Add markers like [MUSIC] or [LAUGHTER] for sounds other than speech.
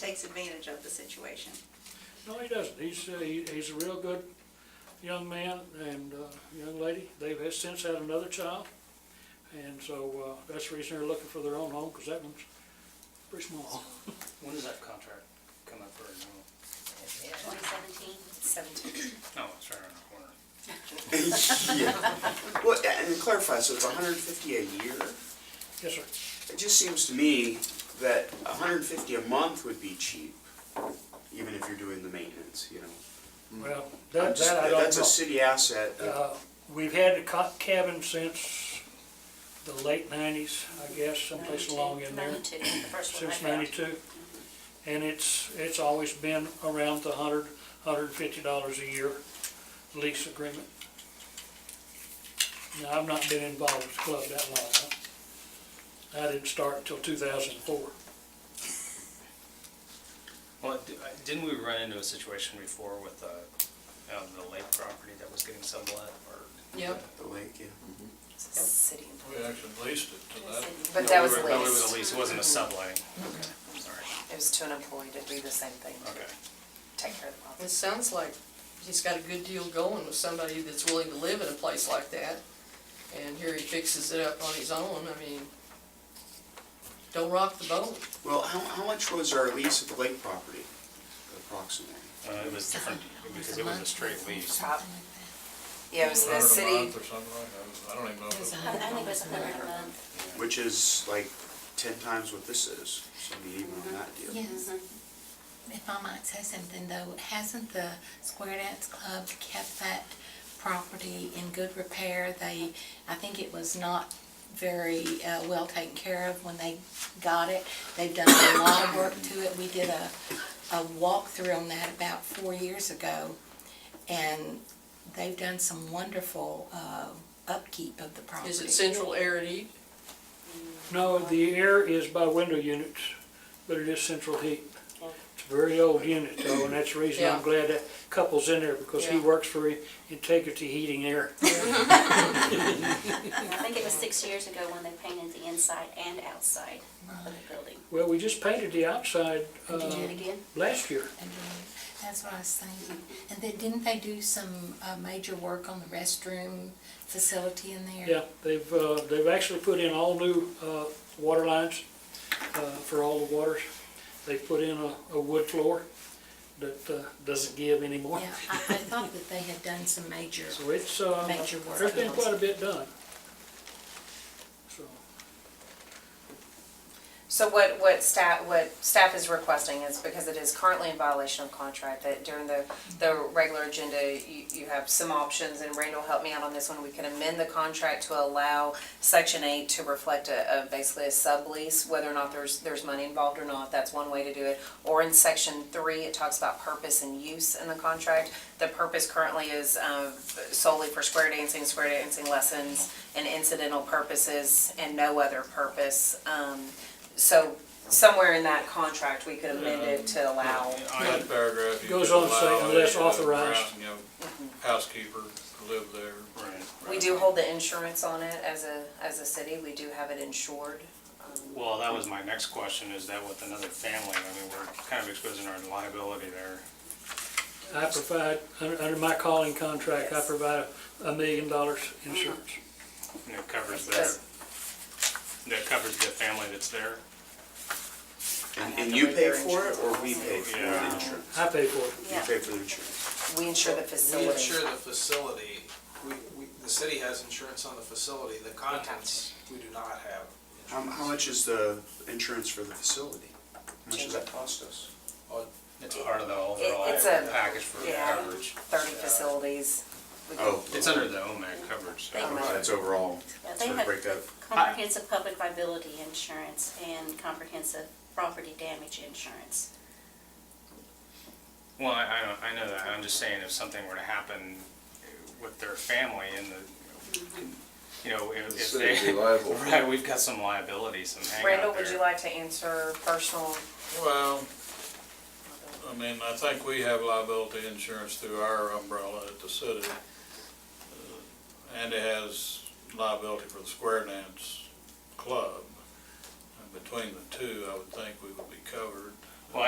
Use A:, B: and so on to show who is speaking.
A: He takes advantage of the situation.
B: No, he doesn't. He's, uh, he- he's a real good young man and, uh, young lady. They've had- since had another child. And so, uh, that's the reason they're looking for their own home, because that one's pretty small.
C: Oh.
D: When does that contract come up for renewal?
E: Twenty seventeen? Seventeen.
D: No, Oh, it's right around the corner.
C: Yeah. Well, and to clarify, so it's 150 a year?
B: Yes, sir.
C: It just seems to me that 150 a month would be cheap, even if you're doing the maintenance, you know?
B: Well,
C: Mm. I'm
B: that,
C: just-
B: that I don't
C: That's a
B: know.
C: city asset. that-
B: Uh, We've had the co- cabin since the late nineties, I guess, someplace along in there.
E: Ninety-two, the first one I
B: since
E: found.
B: ninety-two. And it's, it's always been around the hundred, hundred and fifty dollars a year lease agreement. Now, I've not been involved with the club that long. huh? I didn't start until two thousand and four.
D: Well, d- I- didn't we run into a situation before with uh, um, the lake property that was getting sublet or?
F: Yep.
C: The lake, yeah.
E: City
G: We actually leased it to that.
F: But that was
D: No, we were- no, it was
F: leased.
D: a lease, it wasn't a subletting. Okay, sorry,
E: It was to an employee to do the same thing,
D: okay.
E: take care of the
F: It
E: office.
F: sounds like he's got a good deal going with somebody that's willing to live in a place like that. And here he fixes it up on his own, I mean, don't rock the boat.
C: Well, how, how much was our lease at the lake property approximately?
D: Uh, It was different because it was a straight lease.
E: Top. Yeah, it was the
G: Hundred a
E: city,
G: month Or something like that. I don't even know. if it-
E: I think it was a hundred a month.
C: Which is like 10 times what this is, so I mean, even on that deal.
H: Yes. Mm-hmm. If I might say something though, hasn't the Square Dance Club kept that property in good repair? They, I think it was not very uh, well taken care of when they got it. They've done a lot of work to it. We did a, a walkthrough on that about four years ago. And they've done some wonderful uh, upkeep of the property.
F: Is it central air and E? heat?
B: No, the air is by window units, but it is central heat. It's a very old unit though, and that's the reason I'm
F: Yeah.
B: glad that couple's in there, because he
F: Yeah.
B: works for Integrity Heating Air.
I: I think it was six years ago when they painted the inside and outside of the building.
B: Well, we just painted the outside,
I: Did you
B: uh,
I: do it again?
B: last year.
H: And then- That's what I was thinking. And then didn't they do some uh, major work on the restroom facility in there?
B: Yeah, they've, uh, they've actually put in all new, uh, water lines, uh, for all the waters. They put in a, a wood floor that, uh, doesn't give anymore.
H: Yeah, I, I thought that they had done some major,
B: So it's, uh,
H: Major work.
B: there's been quite a bit done. So,
E: So what, what staff, what staff is requesting is, because it is currently in violation of contract, that during the, the regular agenda, you, you have some options, and Randall helped me out on this one, we can amend the contract to allow section eight to reflect a, a, basically a sublease, whether or not there's, there's money involved or not, that's one way to do it. Or in section three, it talks about purpose and use in the contract. The purpose currently is, um, solely for square dancing, square dancing lessons, and incidental purposes, and no other purpose. Um, so somewhere in that contract, we could amend it to allow,
D: I-
G: That paragraph. you
B: Goes
G: could
B: on to say
G: allow
B: unless
G: a, uh,
B: authorized.
G: ground, You know, housekeeper to live there.
D: right,
E: we
D: right.
E: do hold the insurance on it as a, as a city, we do have it insured. Um,
D: Well, that was my next question, is that with another family? I mean, we're kind of exposing our liability there.
B: I provide, under, under my calling contract, I
E: Yes.
B: provide a million dollars insurance.
D: And it covers
E: Yes.
D: that, that covers the family that's there?
C: And-
E: I have
C: And
E: to
C: you
E: read
C: pay
E: their
C: for it, or we pay for the
D: Yeah.
C: insurance?
B: I pay for it.
C: You pay for the insurance?
E: We insure the
J: We
E: facility.
J: insure the facility, we, we, the city has insurance on the facility, the contents, we do not have.
C: How, how much is the insurance for the facility? How much does that cost us?
D: It's part of the overall
E: It- it's a-
D: package for
E: yeah.
D: coverage.
E: Thirty facilities. We can-
C: Oh.
D: It's under the OMAC coverage, so.
E: Thank you.
C: That's overall,
I: Yeah,
C: so
I: They
C: we
I: have
C: break up.
I: comprehensive public liability insurance and comprehensive property damage insurance.
D: Well, I, I don't- I know that, I'm just saying if something were to happen with their family and the, you know, if if they. [LAUGHS] Right, we've got some liability, some hangout there.
E: Randall, would you like to answer personal?
G: Well, I mean, I think we have liability insurance through our umbrella at the city. Uh, Andy has liability for the square dance club. And Between the two, I would think we would be covered.